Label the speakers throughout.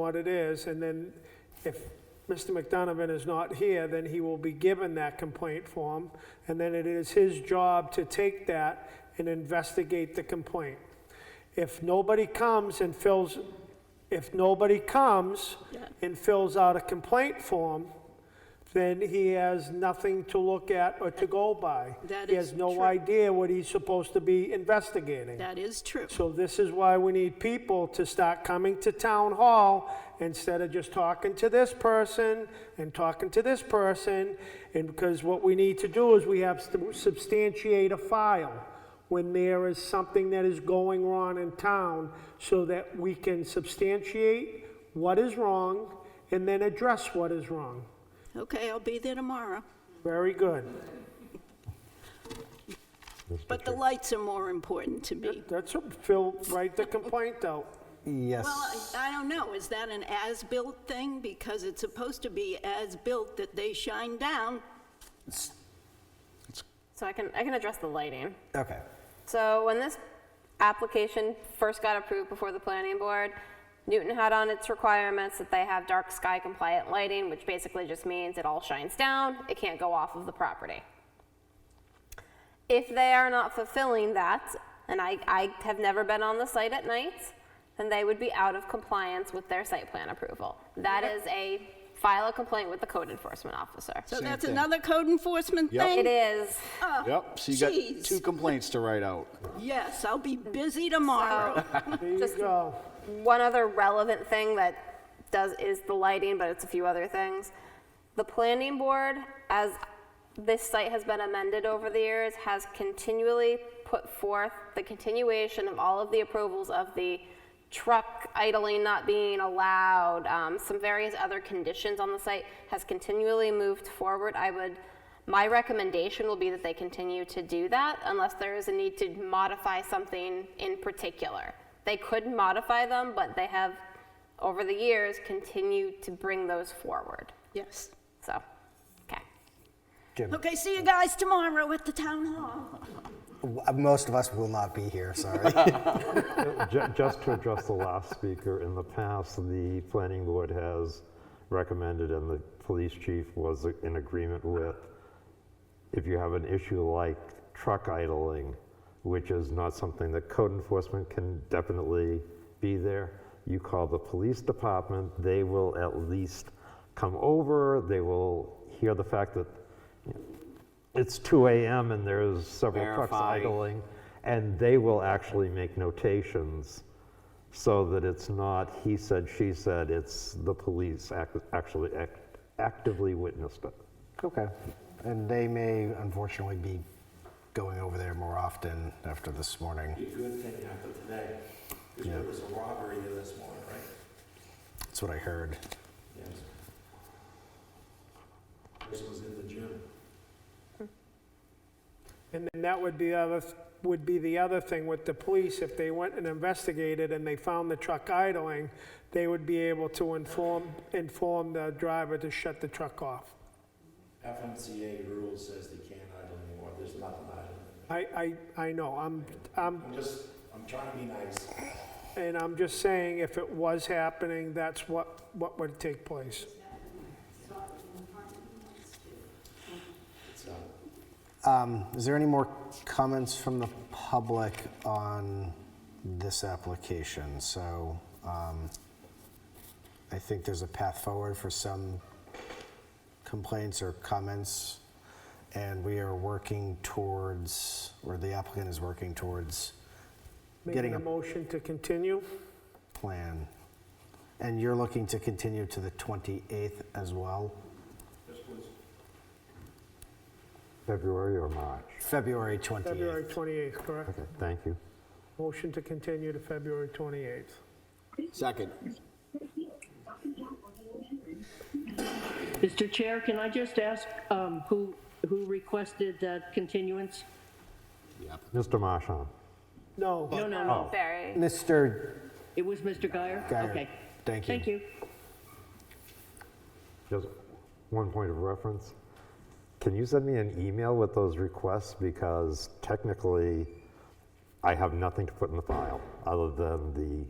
Speaker 1: what it is, and then if Mr. McDonovan is not here, then he will be given that complaint form, and then it is his job to take that and investigate the complaint. If nobody comes and fills, if nobody comes
Speaker 2: Yeah.
Speaker 1: and fills out a complaint form, then he has nothing to look at or to go by.
Speaker 2: That
Speaker 1: He
Speaker 2: is
Speaker 1: has no
Speaker 2: true.
Speaker 1: idea what he's supposed to be investigating.
Speaker 2: That is true.
Speaker 1: So this is why we need people to start coming to town hall instead of just talking to this person and talking to this person. And because what we need to do is we have to substantiate a file when there is something that is going wrong in town so that we can substantiate what is wrong and then address what is wrong.
Speaker 2: Okay, I'll be there tomorrow.
Speaker 1: Very good.
Speaker 2: But the lights are more important to me.
Speaker 1: That's, Phil, write the complaint out.
Speaker 2: Well,
Speaker 3: Yes.
Speaker 2: I I don't know, is that an as-built thing? Because it's supposed to be as-built that they shine down.
Speaker 4: So I can, I can address the lighting.
Speaker 3: Okay.
Speaker 4: So when this application first got approved before the planning board, Newton had on its requirements that they have dark sky compliant lighting, which basically just means it all shines down, it can't go off of the property. If they are not fulfilling that, and I, I have never been on the site at night, then they would be out of compliance with their site plan approval. That is a, file a complaint with the code enforcement officer.
Speaker 2: So that's
Speaker 5: thing.
Speaker 2: another code enforcement
Speaker 5: Yep.
Speaker 2: thing?
Speaker 4: It is,
Speaker 2: Oh,
Speaker 5: Yep, so you got
Speaker 2: jeez.
Speaker 5: two complaints to write out.
Speaker 2: Yes, I'll be busy tomorrow.
Speaker 1: There you
Speaker 4: Just-
Speaker 1: go.
Speaker 4: One other relevant thing that does is the lighting, but it's a few other things. The planning board, as this site has been amended over the years, has continually put forth the continuation of all of the approvals of the truck idling not being allowed, um, some various other conditions on the site, has continually moved forward. I would, my recommendation will be that they continue to do that unless there is a need to modify something in particular. They could modify them, but they have, over the years, continued to bring those forward.
Speaker 2: Yes.
Speaker 4: So, okay.
Speaker 3: Jim,
Speaker 2: Okay, see you guys tomorrow at the town hall.
Speaker 3: w- uh, most of us will not be here, sorry.
Speaker 6: Ju- Just to address the last speaker, in the past, the planning board has recommended, and the police chief was in agreement with, if you have an issue like truck idling, which is not something that code enforcement can definitely be there, you call the police department, they will at least come over, they will hear the fact that you know, it's 2 AM and there's several trucks
Speaker 5: Verify.
Speaker 6: idling, and they will actually make notations so that it's not he said, she said, it's the police act- actually act- actively witnessed it.
Speaker 3: Okay. And they may unfortunately be going over there more often after this morning.
Speaker 7: a good thing happened today, because there was a robbery here this morning, right?
Speaker 3: That's what I heard.
Speaker 7: Yes. Person was in the gym.
Speaker 1: And then that would be other, would be the other thing with the police, if they went and investigated and they found the truck idling, they would be able to inform, inform the driver to shut the truck off.
Speaker 7: FMCA rule says they can't idle anymore, there's nothing idling.
Speaker 1: I, I, I know, I'm, I'm,
Speaker 7: I'm just, I'm trying to be nice.
Speaker 1: and I'm just saying, if it was happening, that's what, what would take place.
Speaker 7: So,
Speaker 3: Um, Is there any more comments from the public on this application? So um, I think there's a path forward for some complaints or comments, and we are working towards, or the applicant is working towards
Speaker 1: Making
Speaker 3: Getting
Speaker 1: a
Speaker 3: a-
Speaker 1: motion to continue?
Speaker 3: plan. And you're looking to continue to the 28th as well?
Speaker 6: February or March?
Speaker 3: February 28th.
Speaker 1: February 28th, correct?
Speaker 6: Okay, thank you.
Speaker 1: Motion to continue to February 28th.
Speaker 5: Second.
Speaker 8: Mr. Chair, can I just ask um, who, who requested that continuance?
Speaker 6: Mr. Marchand?
Speaker 1: No.
Speaker 8: No, no, no,
Speaker 4: Barry.
Speaker 3: Mr.
Speaker 8: it was Mr. Guyer?
Speaker 3: Guyer,
Speaker 8: Okay.
Speaker 3: thank you.
Speaker 8: Thank you.
Speaker 6: Just one point of reference. Can you send me an email with those requests? Because technically, I have nothing to put in the file other than the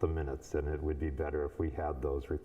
Speaker 6: the minutes, and it would be better if we had those recorded